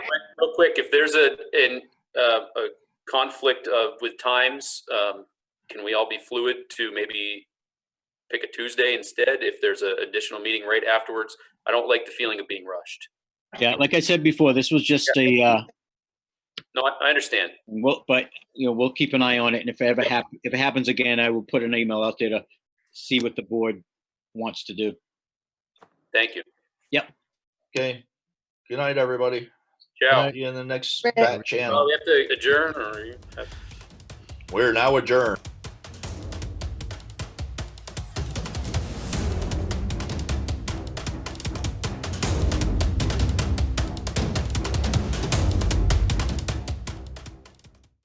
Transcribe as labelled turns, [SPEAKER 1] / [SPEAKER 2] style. [SPEAKER 1] real quick, if there's a, an, uh, a conflict of, with times, um, can we all be fluid to maybe pick a Tuesday instead if there's an additional meeting right afterwards? I don't like the feeling of being rushed.
[SPEAKER 2] Yeah, like I said before, this was just a, uh,
[SPEAKER 1] No, I, I understand.
[SPEAKER 2] well, but, you know, we'll keep an eye on it, and if it ever hap, if it happens again, I will put an email out there to see what the board wants to do.
[SPEAKER 1] Thank you.
[SPEAKER 3] Okay. Good night, everybody.
[SPEAKER 1] Ciao.
[SPEAKER 3] See you in the next
[SPEAKER 4] Right.
[SPEAKER 3] back
[SPEAKER 1] Oh,
[SPEAKER 3] channel.
[SPEAKER 1] we have to adjourn or? you-
[SPEAKER 3] We're now adjourned.